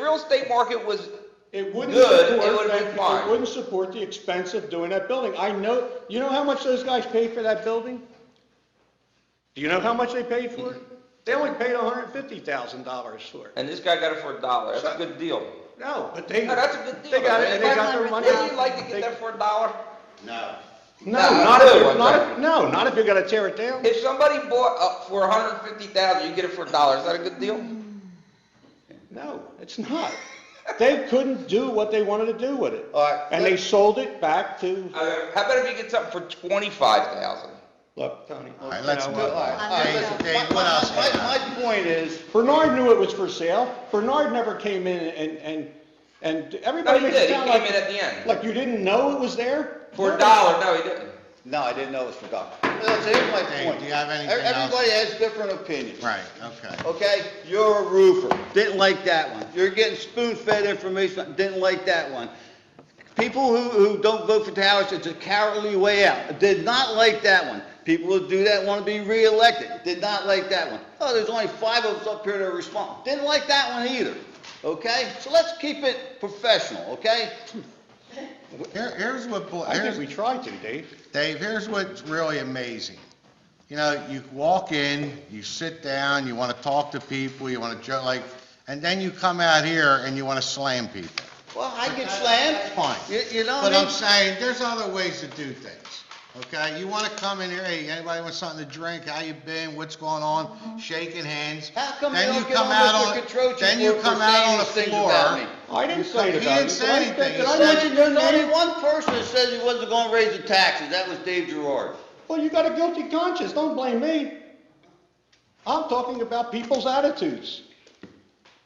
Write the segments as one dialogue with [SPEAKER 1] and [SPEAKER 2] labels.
[SPEAKER 1] real estate market was,
[SPEAKER 2] It wouldn't
[SPEAKER 1] Good,
[SPEAKER 2] support.
[SPEAKER 1] it would've been
[SPEAKER 2] that-
[SPEAKER 1] fine.
[SPEAKER 2] It wouldn't support the expense of doing that building. I know, you know how much those guys paid for that building? Do you know how much they paid for it? They only paid hundred and fifty thousand dollars for it.
[SPEAKER 1] and this guy got it for a dollar, that's a good deal.
[SPEAKER 2] No, but they.
[SPEAKER 1] No, that's a good deal.
[SPEAKER 2] They got
[SPEAKER 1] man.
[SPEAKER 2] it, they got their money.
[SPEAKER 1] Wouldn't you like to get
[SPEAKER 2] They-
[SPEAKER 1] that for a dollar?
[SPEAKER 3] No.
[SPEAKER 2] No,
[SPEAKER 1] Nah,
[SPEAKER 2] not if,
[SPEAKER 1] good
[SPEAKER 2] you're-
[SPEAKER 1] one,
[SPEAKER 2] not
[SPEAKER 1] though.
[SPEAKER 2] if, no, not if you're gonna tear it down.
[SPEAKER 1] If somebody bought up for a hundred and fifty thousand, you get it for a dollar, is that a good deal?
[SPEAKER 2] No, it's not. They couldn't do what they wanted to do with it.
[SPEAKER 3] All right,
[SPEAKER 2] And they
[SPEAKER 3] let's-
[SPEAKER 2] sold it back to,
[SPEAKER 1] Uh, How about if you get something for twenty-five thousand?
[SPEAKER 2] look, Tony.
[SPEAKER 3] All right, let's
[SPEAKER 2] you
[SPEAKER 3] move
[SPEAKER 2] know
[SPEAKER 3] on.
[SPEAKER 2] what?
[SPEAKER 3] All right,
[SPEAKER 4] I'm
[SPEAKER 3] listen,
[SPEAKER 4] not-
[SPEAKER 3] Dave, what else?
[SPEAKER 5] My, my point is,
[SPEAKER 2] Bernard knew it was for sale. Bernard never came in and, and, and
[SPEAKER 1] No,
[SPEAKER 2] everybody
[SPEAKER 1] he
[SPEAKER 2] makes it
[SPEAKER 1] did, he
[SPEAKER 2] sound
[SPEAKER 1] came in at
[SPEAKER 2] like,
[SPEAKER 1] the end,
[SPEAKER 2] like you didn't know it was there?
[SPEAKER 1] for a dollar, no, he didn't.
[SPEAKER 5] no, I didn't know it was for doctor. That's, here's my
[SPEAKER 3] Dave,
[SPEAKER 5] point.
[SPEAKER 3] do you have anything
[SPEAKER 5] Ev-
[SPEAKER 3] else?
[SPEAKER 5] Everybody has different opinions.
[SPEAKER 3] Right, okay.
[SPEAKER 5] Okay, you're a roofer, didn't like that one. You're getting spoon-fed information, didn't like that one. People who, who don't vote for towers, it's a cowardly way out, did not like that one. People who do that want to be reelected, did not like that one. Oh, there's only five of us up here to respond, didn't like that one either, okay? So let's keep it professional, okay? Oh.
[SPEAKER 3] Here, here's what, bo-
[SPEAKER 2] I think
[SPEAKER 3] here's,
[SPEAKER 2] we tried to, Dave.
[SPEAKER 3] Dave, here's what's really amazing. You know, you walk in, you sit down, you want to talk to people, you want to joke, like, and then you come out here and you want to slam people.
[SPEAKER 5] Well, I get slammed,
[SPEAKER 3] Fine.
[SPEAKER 5] you, you know
[SPEAKER 3] But
[SPEAKER 5] what I
[SPEAKER 3] I'm
[SPEAKER 5] mean?
[SPEAKER 3] saying, there's other ways to do things, okay? You want to come in here, hey, anybody want something to drink? How you been? What's going on? Shaking hands.
[SPEAKER 5] How come they
[SPEAKER 3] Then
[SPEAKER 5] don't
[SPEAKER 3] you
[SPEAKER 5] get
[SPEAKER 3] come
[SPEAKER 5] on
[SPEAKER 3] out
[SPEAKER 5] with
[SPEAKER 3] on-
[SPEAKER 5] Mr. Catroci
[SPEAKER 3] then you
[SPEAKER 5] for- for
[SPEAKER 3] come out
[SPEAKER 5] saying
[SPEAKER 3] on the
[SPEAKER 5] these things
[SPEAKER 3] floor.
[SPEAKER 5] about me?
[SPEAKER 2] I didn't say it
[SPEAKER 3] He
[SPEAKER 2] about
[SPEAKER 3] didn't
[SPEAKER 2] you.
[SPEAKER 3] say
[SPEAKER 2] Did I
[SPEAKER 3] anything.
[SPEAKER 2] say-
[SPEAKER 3] He
[SPEAKER 2] Did I
[SPEAKER 3] said-
[SPEAKER 2] mention your
[SPEAKER 5] There's only
[SPEAKER 2] name?
[SPEAKER 5] one person that says he wasn't gonna raise the taxes, that was Dave Gerard.
[SPEAKER 2] Well, you got a guilty conscience. Don't blame me. I'm talking about people's attitudes.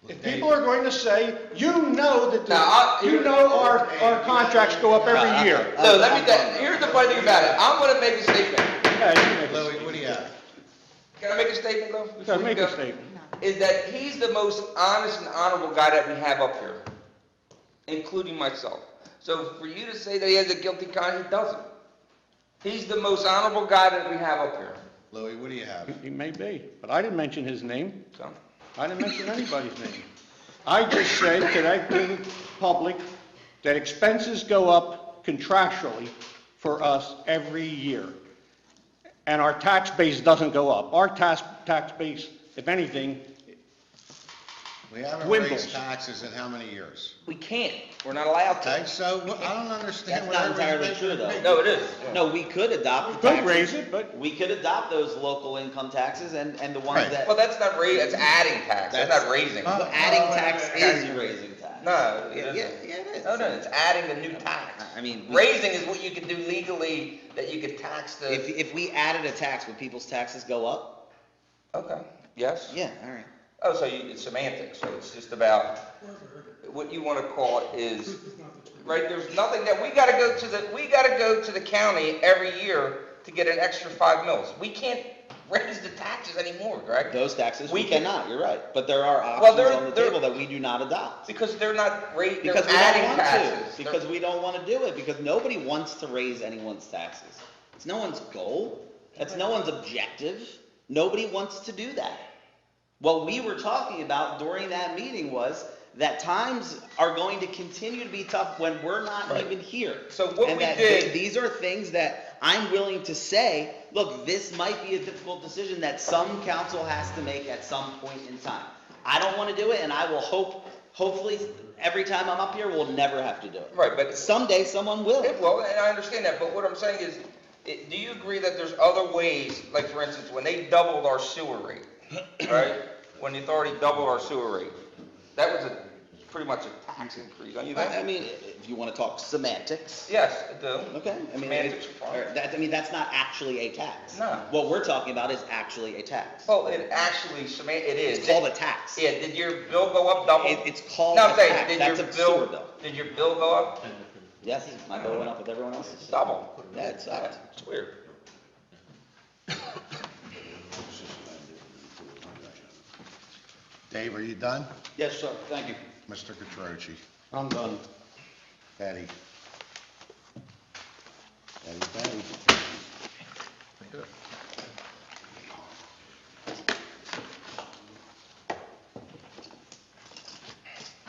[SPEAKER 2] If people are going to say, you know that,
[SPEAKER 1] Now, I-
[SPEAKER 2] the- you know our, our contracts go up every year.
[SPEAKER 1] No, let me, tell- here's the funny thing about it, I'm gonna make a statement.
[SPEAKER 3] Louis, what do you have?
[SPEAKER 1] Can I make a statement though? before
[SPEAKER 2] Yeah,
[SPEAKER 1] you
[SPEAKER 2] make
[SPEAKER 1] go?
[SPEAKER 2] a statement.
[SPEAKER 1] Is that he's the most honest and honorable guy that we have up here, including myself. So for you to say that he has a guilty conscience, he doesn't. He's the most honorable guy that we have up here,
[SPEAKER 3] Louis, what do you have?
[SPEAKER 2] He may be, but I didn't mention his name.
[SPEAKER 1] so.
[SPEAKER 2] I didn't mention anybody's name. I just said that I give the public that expenses go up contractually for us every year. And our tax base doesn't go up. Our tax, tax base, if anything,
[SPEAKER 3] We haven't
[SPEAKER 2] Wimbles.
[SPEAKER 3] raised taxes in how many years?
[SPEAKER 1] We can't, we're not allowed
[SPEAKER 3] Okay,
[SPEAKER 1] to.
[SPEAKER 3] so what- I don't
[SPEAKER 6] That's
[SPEAKER 3] understand. what
[SPEAKER 6] not
[SPEAKER 3] everybody's
[SPEAKER 6] entirely true,
[SPEAKER 3] making-
[SPEAKER 1] No, it is.
[SPEAKER 6] No, we could adopt the
[SPEAKER 2] could
[SPEAKER 6] taxes.
[SPEAKER 2] raise it, but-
[SPEAKER 6] We could adopt those local income taxes and, and the ones
[SPEAKER 3] Right.
[SPEAKER 6] that,
[SPEAKER 1] Well, that's not ra, that's adding tax, that's not raising.
[SPEAKER 3] Huh?
[SPEAKER 1] No,
[SPEAKER 6] but adding tax is
[SPEAKER 1] wait, wait.
[SPEAKER 6] raising tax.
[SPEAKER 1] yeah, yeah,
[SPEAKER 6] it is.
[SPEAKER 1] no, no, it's adding the new tax.
[SPEAKER 6] I- I mean, we-
[SPEAKER 1] Raising is what you can do legally, that you can tax
[SPEAKER 6] If,
[SPEAKER 1] the,
[SPEAKER 6] if we added a tax, would people's taxes go up?
[SPEAKER 1] okay, yes?
[SPEAKER 6] Yeah, all right.
[SPEAKER 1] Oh, so you, it's semantics, so it's just about, what you wanna call it is, right, there's nothing that, we gotta go to the, we gotta go to the county every year to get an extra five mils. We can't raise the taxes anymore, Greg,
[SPEAKER 6] Those taxes,
[SPEAKER 1] We
[SPEAKER 6] we
[SPEAKER 1] can-
[SPEAKER 6] cannot, you're right. But there are
[SPEAKER 1] Well,
[SPEAKER 6] options
[SPEAKER 1] there-
[SPEAKER 6] on the
[SPEAKER 1] there-
[SPEAKER 6] table that we do not adopt.
[SPEAKER 1] because they're not rate, they're
[SPEAKER 6] Because we don't
[SPEAKER 1] adding
[SPEAKER 6] want
[SPEAKER 1] taxes.
[SPEAKER 6] to,
[SPEAKER 1] They're-
[SPEAKER 6] because we don't wanna do it, because nobody wants to raise anyone's taxes. It's no one's goal, that's no one's objective, nobody wants to do that. What we were talking about during that meeting was that times are going to continue to be tough when we're not even here.
[SPEAKER 1] So what
[SPEAKER 6] And
[SPEAKER 1] we
[SPEAKER 6] that
[SPEAKER 1] did-
[SPEAKER 6] th- These are things that I'm willing to say, look, this might be a difficult decision that some council has to make at some point in time. I don't wanna do it, and I will hope, hopefully, every time I'm up here, we'll never have to do it.
[SPEAKER 1] Right, but-
[SPEAKER 6] Someday, someone will.
[SPEAKER 1] Okay, Well, and I understand that, but what I'm saying is, it- do you agree that there's other ways, like for instance, when they doubled our sewer rate, right? When the authority doubled our sewer rate, that was a, pretty much a tax increase, don't you
[SPEAKER 6] I, I
[SPEAKER 1] think?
[SPEAKER 6] mean, if you wanna talk semantics,
[SPEAKER 1] Yes, it do.
[SPEAKER 6] okay, I mean,
[SPEAKER 1] Semantics
[SPEAKER 6] it-
[SPEAKER 1] are
[SPEAKER 6] or
[SPEAKER 1] fine.
[SPEAKER 6] that, I mean, that's not actually a tax.
[SPEAKER 1] No.
[SPEAKER 6] What we're talking about is actually a tax.
[SPEAKER 1] Well, it actually, sema- it is.
[SPEAKER 6] It's called a tax.
[SPEAKER 1] Yeah, did your bill go up double?
[SPEAKER 6] It- it's called
[SPEAKER 1] No, I'm
[SPEAKER 6] a
[SPEAKER 1] saying,
[SPEAKER 6] tax.
[SPEAKER 1] did
[SPEAKER 6] That's
[SPEAKER 1] your
[SPEAKER 6] a sewer bill.
[SPEAKER 1] Did your bill go up
[SPEAKER 6] Yes, my bill went up with everyone else's.
[SPEAKER 1] double?
[SPEAKER 6] Yeah, it sucked.
[SPEAKER 1] It's weird.
[SPEAKER 3] Dave, are you done?
[SPEAKER 5] Yes, sir, thank you.
[SPEAKER 3] Mr. Catroci,
[SPEAKER 2] I'm done.
[SPEAKER 3] Eddie. Eddie, Eddie.